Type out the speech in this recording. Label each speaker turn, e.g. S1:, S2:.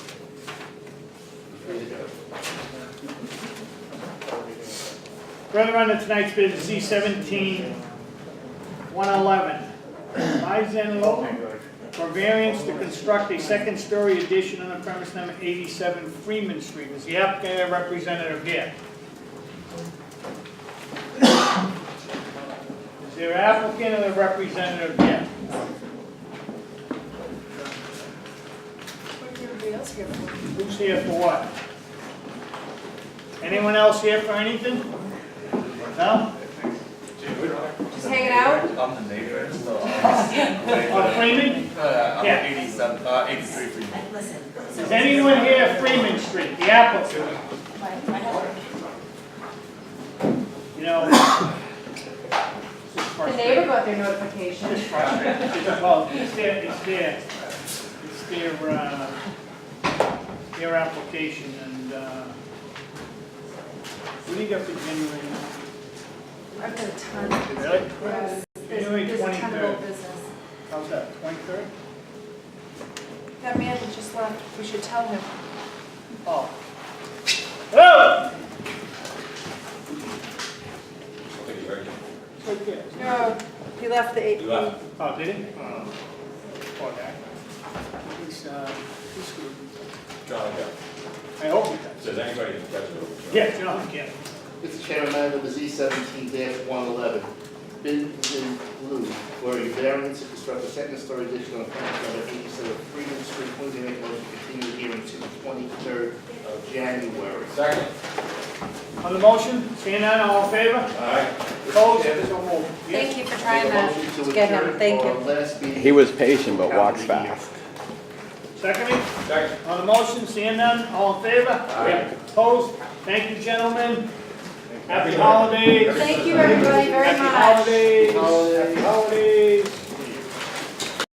S1: Further on to tonight's business, C seventeen, one eleven. Lizen Logan for variance to construct a second-story addition on the premise number eighty-seven Freeman Street. Is the applicant or representative here? Is there applicant or representative here?
S2: What did everybody else get for?
S1: Who's here for what? Anyone else here for anything? No?
S2: Just hanging out?
S3: I'm the neighbor, so. I'm
S1: Or Freeman?
S3: Uh, I'm
S1: Yeah.
S3: eighty-seven, uh, eighty-three for you.
S4: Listen. so-
S1: Is anyone here Freeman Street, the applicant?
S4: My, my husband.
S1: You know. this is
S2: The
S1: frustrating.
S2: neighbor got their notification.
S1: It's frustrating. It's, well, it's their, it's their, it's their, uh, their application and, uh, what do you got for January?
S2: I've got a ton of
S1: Really?
S2: gross. There's,
S1: January
S2: there's a ton of old
S1: 23rd.
S2: business.
S1: How's that, twenty-third?
S2: That man that just left, we should tell him.
S1: Oh. Oh! It's right there.
S2: No, he left the eight.
S1: Oh, did it? Oh, poor guy. He's, uh, he's screwed.
S5: John, yeah.
S1: I hope he does.
S5: Does anybody have a
S1: Yeah, John, I can't.
S6: Mr. Chairman, I have the Z seventeen one eleven, bin in blue, where a variance to construct a second story addition on premise number eighty-seven Freedom Street, moving make motion to continue the hearing to the twenty-third of January.
S5: Second.
S1: On the motion, seeing none, all in favor?
S5: Aye.
S1: Opposed, so moved.
S2: Thank you for
S6: Make
S2: trying
S6: a
S2: that.
S6: motion
S2: to uh, get him.
S6: adjourn
S2: Thank
S6: for
S2: you.
S6: Last meeting.
S7: He was patient but walked fast.
S1: Secondly,
S5: Second.
S1: on the motion, seeing none, all in favor?
S5: Aye.
S1: Opposed, thank you, gentlemen. Happy holidays.
S2: Thank you, everybody, very much.
S1: Happy holidays. Happy holidays.